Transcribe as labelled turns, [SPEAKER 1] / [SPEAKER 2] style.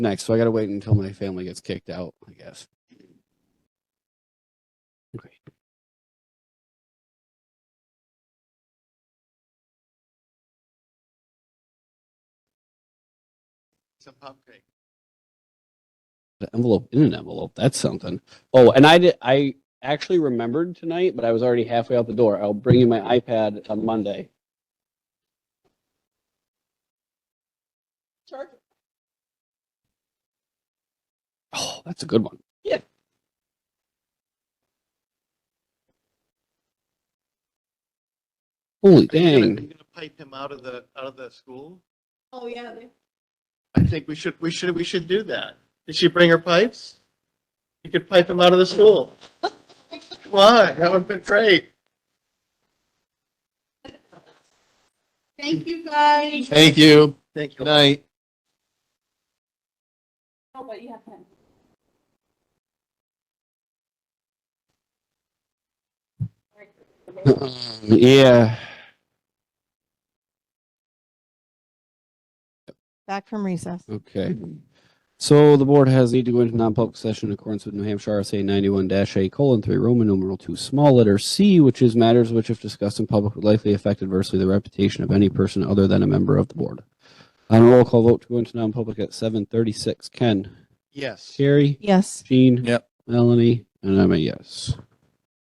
[SPEAKER 1] next. So I got to wait until my family gets kicked out, I guess. Okay.
[SPEAKER 2] Some pump cake.
[SPEAKER 1] The envelope in an envelope. That's something. Oh, and I did. I actually remembered tonight, but I was already halfway out the door. I'll bring you my iPad on Monday.
[SPEAKER 3] Charge
[SPEAKER 1] Oh, that's a good one.
[SPEAKER 3] Yeah.
[SPEAKER 1] Holy
[SPEAKER 2] Are you gonna-
[SPEAKER 1] dang.
[SPEAKER 2] you gonna pipe him out of the, out of the school?
[SPEAKER 3] Oh, yeah, they-
[SPEAKER 2] I think we should, we should, we should do that. Did she bring her pipes? You could pipe him out of the school. Why? That would've been great.
[SPEAKER 3] thank you guys.
[SPEAKER 4] Thank you.
[SPEAKER 2] Thank
[SPEAKER 4] Good
[SPEAKER 2] you.
[SPEAKER 4] night.
[SPEAKER 3] Oh, but you have time.
[SPEAKER 1] Yeah.
[SPEAKER 5] Back from recess.
[SPEAKER 1] Okay. So the board has need to go into non-public session in accordance with New Hampshire RSA ninety-one A colon three Roman numeral two small letter C, which is matters which if discussed in public would likely affect adversely the reputation of any person other than a member of the board. On a roll call vote to go into non-public at seven thirty-six, Ken,
[SPEAKER 2] Yes.
[SPEAKER 1] Carrie,
[SPEAKER 5] Yes.
[SPEAKER 1] Jean.
[SPEAKER 4] Yep.
[SPEAKER 1] Melanie, and I'm a yes.